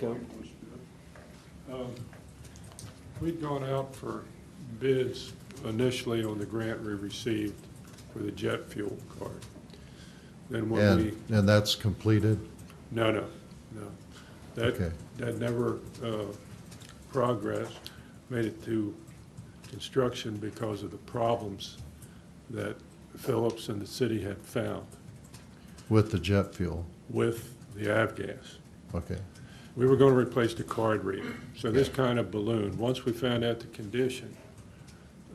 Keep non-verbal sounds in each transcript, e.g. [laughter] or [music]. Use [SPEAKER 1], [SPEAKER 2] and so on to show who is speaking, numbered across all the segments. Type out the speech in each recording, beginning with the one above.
[SPEAKER 1] Go.
[SPEAKER 2] Um, We'd gone out for bids initially on the grant we received for the jet fuel card. Then when we,
[SPEAKER 3] And, and that's completed?
[SPEAKER 2] no, no, no. That,
[SPEAKER 3] Okay.
[SPEAKER 2] that never uh, progressed, made it to construction because of the problems that Phillips and the city had found
[SPEAKER 3] With the jet fuel?
[SPEAKER 2] with the avgas.
[SPEAKER 3] Okay,
[SPEAKER 2] We were going to replace the card reader, so this kind of balloon. Once we found out the condition,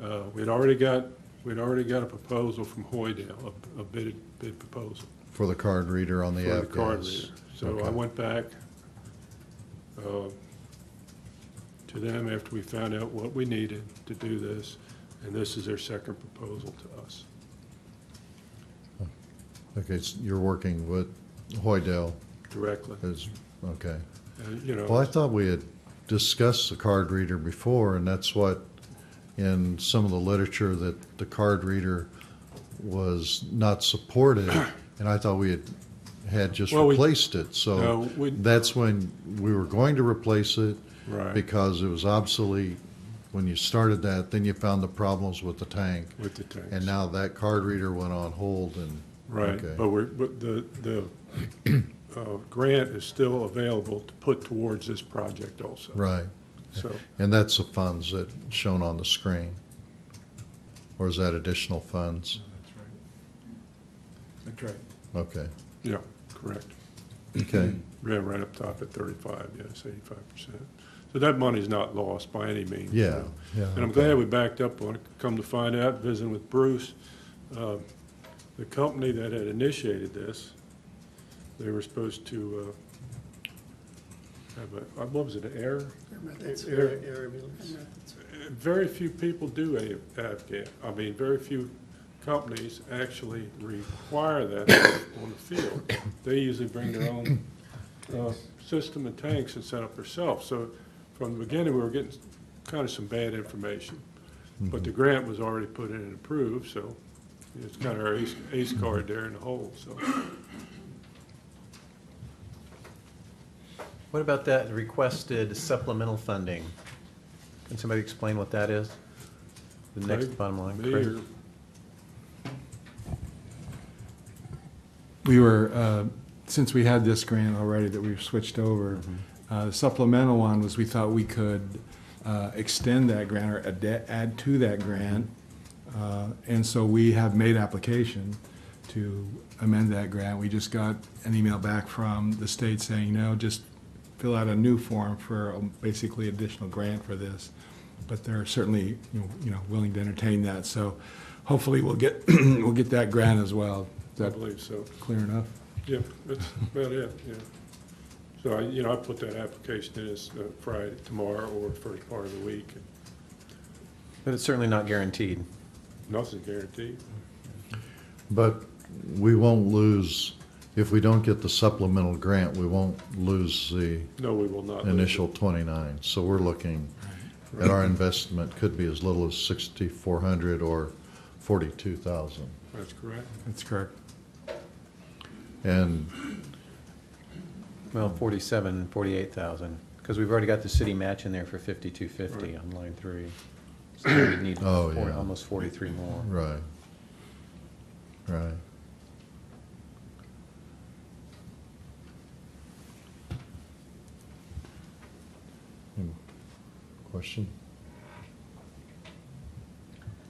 [SPEAKER 2] uh, we'd already got, we'd already got a proposal from Hoydale, a- a bid, bid proposal
[SPEAKER 3] for the card reader on the
[SPEAKER 2] for the
[SPEAKER 3] app
[SPEAKER 2] card
[SPEAKER 3] yes.
[SPEAKER 2] reader. So I
[SPEAKER 3] Okay.
[SPEAKER 2] went back uh, to them after we found out what we needed to do this, and this is their second proposal to us.
[SPEAKER 3] Okay, s- you're working with Hoydell
[SPEAKER 2] Directly,
[SPEAKER 3] is, okay.
[SPEAKER 2] And, you know.
[SPEAKER 3] Well, I thought we had discussed the card reader before, and that's what, in some of the literature, that the card reader was
[SPEAKER 2] [coughs]
[SPEAKER 3] not supported, and I thought we had, had just
[SPEAKER 2] Well, we-
[SPEAKER 3] replaced it, so.
[SPEAKER 2] No, we-
[SPEAKER 3] That's when we were going to replace it.
[SPEAKER 2] Right.
[SPEAKER 3] Because it was obsolete when you started that, then you found the problems with the tank.
[SPEAKER 2] With the tanks.
[SPEAKER 3] And now that card reader went on hold and.
[SPEAKER 2] Right,
[SPEAKER 3] okay.
[SPEAKER 2] but we're, but the, the uh, grant is still available to put towards this project also.
[SPEAKER 3] Right,
[SPEAKER 2] So,
[SPEAKER 3] and that's the funds that shown on the screen. Or is that additional funds?
[SPEAKER 1] That's right.
[SPEAKER 3] Okay,
[SPEAKER 2] yeah, correct.
[SPEAKER 3] okay,
[SPEAKER 2] Ran right up top at thirty-five, yes, eighty-five percent. So that money's not lost by any means. you
[SPEAKER 3] [clears throat] Yeah,
[SPEAKER 2] know.
[SPEAKER 3] yeah,
[SPEAKER 2] And I'm
[SPEAKER 3] okay.
[SPEAKER 2] glad we backed up on it. Come to find out, visiting with Bruce, uh, the company that had initiated this, they were supposed to uh, have a, what was it, an air?
[SPEAKER 4] That's
[SPEAKER 2] Air-
[SPEAKER 4] very ambulance.
[SPEAKER 2] Very few people do a- have gas. I mean, very few companies actually require that on the field. They usually bring their own uh, system and tanks and set up themselves. So from the beginning, we were getting kind of some bad information. But the grant was already put in and approved, so it's kind of our ace- ace card there in the hole, so.
[SPEAKER 5] What about that requested supplemental funding? Can somebody explain what that is? The next
[SPEAKER 2] Craig,
[SPEAKER 5] bottom line.
[SPEAKER 2] Me
[SPEAKER 5] Craig?
[SPEAKER 2] or-
[SPEAKER 6] We were, uh, since we had this grant already that we've switched over, uh, the supplemental one was we thought we could uh, extend that grant or add- add to that grant. Uh, And so we have made application to amend that grant. We just got an email back from the state saying, no, just fill out a new form for um, basically additional grant for this. But they're certainly, you know- you know, willing to entertain that. So hopefully we'll get, [clears throat] we'll get that grant as well. Is
[SPEAKER 2] I
[SPEAKER 6] that
[SPEAKER 2] believe so.
[SPEAKER 6] clear enough?
[SPEAKER 2] Yeah, that's about it, yeah. So I, you know, I put that application in as uh, Friday, tomorrow, or first part of the week, and
[SPEAKER 5] But it's certainly not guaranteed.
[SPEAKER 2] nothing's guaranteed.
[SPEAKER 3] but we won't lose, if we don't get the supplemental grant, we won't lose the
[SPEAKER 2] No, we will not. lose it.
[SPEAKER 3] initial twenty-nine, so we're looking at our investment could be as little as sixty-four hundred or forty-two thousand.
[SPEAKER 2] That's correct.
[SPEAKER 6] That's correct.
[SPEAKER 3] And
[SPEAKER 5] Well, 47, 48,000, because we've already got the city match in there for 5250 on line three. So we would need
[SPEAKER 3] Oh,
[SPEAKER 5] four-
[SPEAKER 3] yeah.
[SPEAKER 5] almost 43 more.
[SPEAKER 3] Right. Right. Any Question?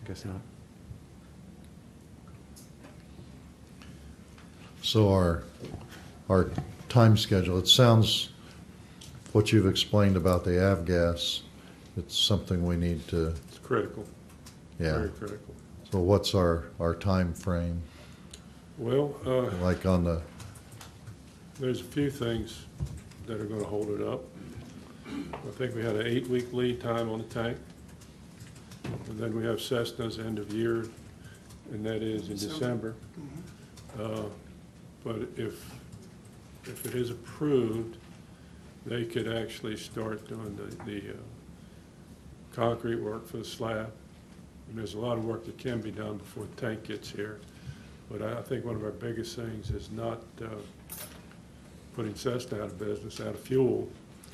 [SPEAKER 5] Guess not.
[SPEAKER 3] So our, our time schedule, it sounds, what you've explained about the avgas, it's something we need to,
[SPEAKER 2] It's critical.
[SPEAKER 3] yeah.
[SPEAKER 2] Very critical.
[SPEAKER 3] So what's our, our timeframe?
[SPEAKER 2] Well, uh,
[SPEAKER 3] Like on the,
[SPEAKER 2] there's a few things that are gonna hold it up. I think we had an eight-week lead time on the tank. And then we have Cessna's end of year, and that is in December.
[SPEAKER 4] December.
[SPEAKER 2] Uh, But if, if it is approved, they could actually start doing the, the uh, concrete work for the slab. And there's a lot of work that can be done before the tank gets here. But I, I think one of our biggest things is not, uh, putting Cessna out of business, out of fuel,